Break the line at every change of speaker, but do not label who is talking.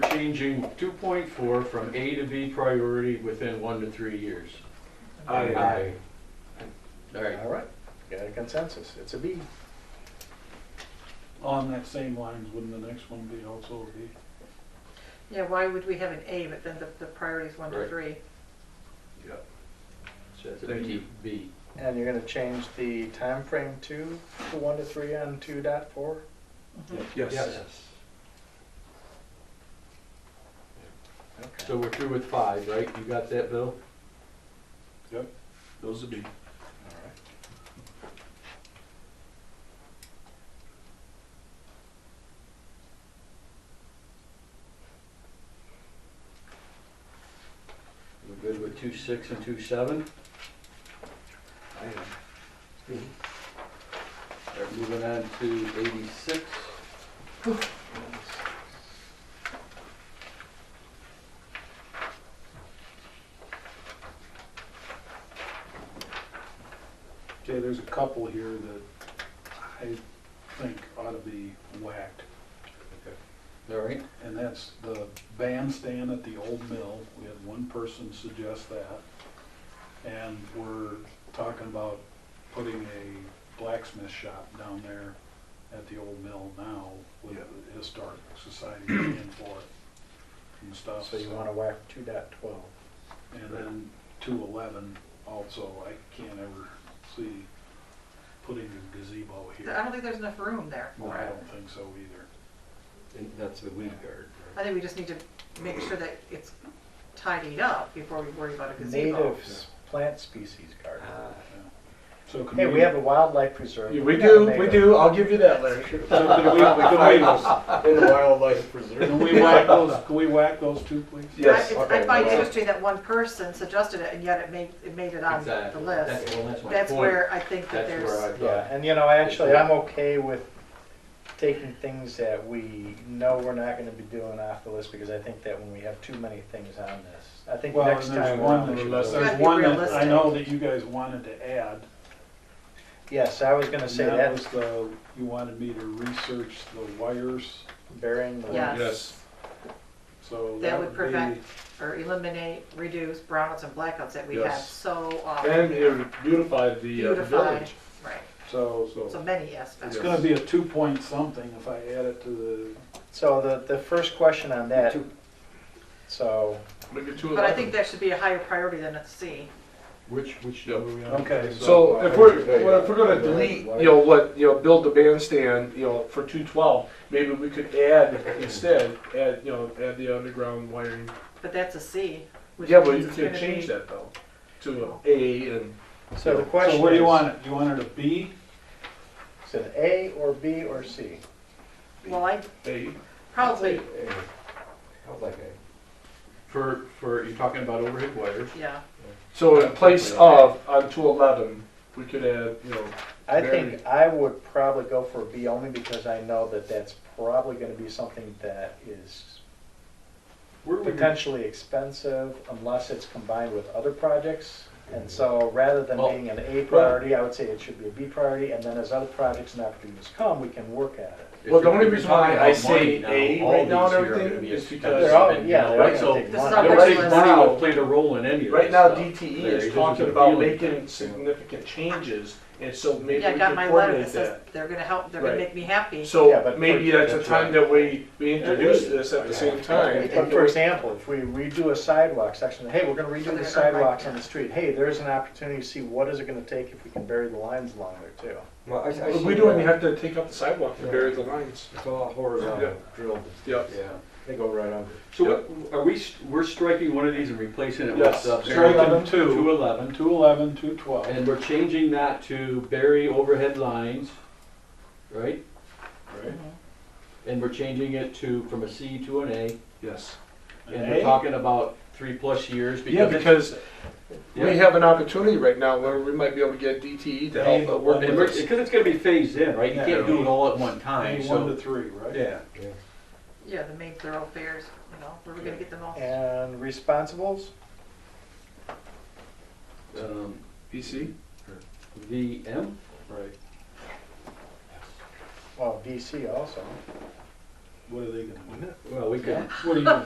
changing two point four from A to B priority within one to three years.
Aye.
All right,
All right, got a consensus, it's a B.
On that same lines, wouldn't the next one be also a B?
Yeah, why would we have an A, but then the, the priority's one to
Right.
three?
so that's a
Thank
B,
you.
B.
And you're gonna change the time frame to, to one to three on two dot four? Okay.
So we're through with five, right? You got that, Bill?
Those would be.
All right.
We're good with two six and two seven?
I am.
All right, moving on to eighty-six.
Okay, there's a couple here that I think ought to be whacked.
All right,
And that's the bandstand at the old mill. We had one person suggest that. And we're talking about putting a blacksmith shop down there at the old mill now with the historic society paying for it and stuff.
So you wanna whack two dot twelve?
And then two eleven also, I can't ever see putting a gazebo
I
here.
don't think there's enough room there
No,
for
I
it.
don't think so either.
And that's the weed guard,
I think we just need to make sure that it's tidied up before we worry about a gazebo.
Native s- plant species
right?
garden.
Uh,
So can
Hey, we have a wildlife preserve.
Yeah, we
not
do, we
native.
do, I'll give you that, Larry.
So can we, can we,
In the wildlife
Can
preserve.
we whack those, can we whack those two, please?
I-
Yes.
it's- I
okay,
find
well-
interesting that one person suggested it, and yet it made, it made it on the
exactly.
list.
That's, well, that's my point.
That's where I think that
That's
there's,
where I
Yeah,
thought.
and you know, actually, I'm okay with taking things that we know we're not gonna be doing off the list, because I think that when we have too many things on this, I think
Well,
next
and there's
time.
one,
around we should
there's
go-
Gotta be
one that I
realistic.
know that you guys wanted to add.
Yes, I was gonna say
and
that,
was the, you wanted me to research the wires,
burying the.
yes,
so
That
that
would
would be.
prevent- or eliminate, reduce brownouts and blackouts that we have
Yes.
so
And it
often.
would beautify the uh,
Beautify,
village.
right,
So,
so
so,
many
it's
aspects.
Yes.
gonna be a two point something if I add it to
So the, the first question on that,
Two.
so,
Look at two
But I think
eleven.
that should be a higher priority than a C.
Which, which
Yep.
number we
the,
on?
okay, so,
So if we're, well, if we're gonna delete, you know, what, you know, build the bandstand, you know, for two twelve, maybe we could add instead, add, you know, add the underground wiring.
But that's a C. which
Yeah, but
means
you
it's
can
gonna
change
be-
that though, to a A and.
so the question is.
so where do you want it, Do you want it a B?
Is it A or B or C?
Well, I
A.
probably,
For, for, you're talking about overhead wires?
yeah,
So in place of, on two eleven, we could add, you know,
I think I would probably go for B only because I know that that's probably gonna be something that is
Where would you-
potentially expensive unless it's combined with other projects. And so rather than
Well-
being an A priority, I would say it should be a B priority, and then as other projects and opportunities come, we can work at it.
If
Well, the
you're
only reason
talking
why
about
I say
money now,
A
all
right now
these
and
here are gonna
everything
be
is
expensive,
because-
They're all,
and, you
yeah,
know,
they're all
right,
gonna
so
take
This is
money.
not
Now,
Right
right
now,
now, will play the role in any of that
Right now,
stuff.
DTE
There,
is
there's
talking
a
about
feeling.
making significant changes, and so maybe
yeah, I
we
got
can
my letter that
coordinate
says
that.
they're gonna help, they're gonna
Right.
make me happy.
Yeah,
So
but
maybe
for-
that's the
that's
time
right.
that we, we introduce this at the same time.
But for example, if we redo a sidewalk section, hey, we're gonna redo the sidewalks on the street, hey, there's an opportunity to see what is it gonna take if we can bury the lines along there too.
Well, I, I
But
see
we don't
that
even have to take up the sidewalk to bury the lines.
It's all horizontal drilled.
Yep.
Yeah, they go right under.
So what, are we, st- we're striking one of these and replacing it with
Yes,
sub
Strike them
two
two,
eleven,
two eleven, two twelve.
and we're changing that to bury overhead lines, right?
Right.
Mm-hmm.
And we're changing it to, from a C to an A,
Yes.
and
An
we're
A?
talking about three plus years
Yeah,
because.
because
Yeah.
we have an opportunity right now where we might be able to get DTE to
Hey,
help
but
but work
what
And
with
we're,
us.
because it's gonna be phased in, right? You
Yeah.
can't do it all at one time,
A one to
so.
three, right?
Yeah.
Yeah, the main thoroughfares, you know, where we're gonna get them all.
And responsibles,
um,
BC?
VM,
Right.
well, VC also.
What are they gonna do?
well, we could,
What are you gonna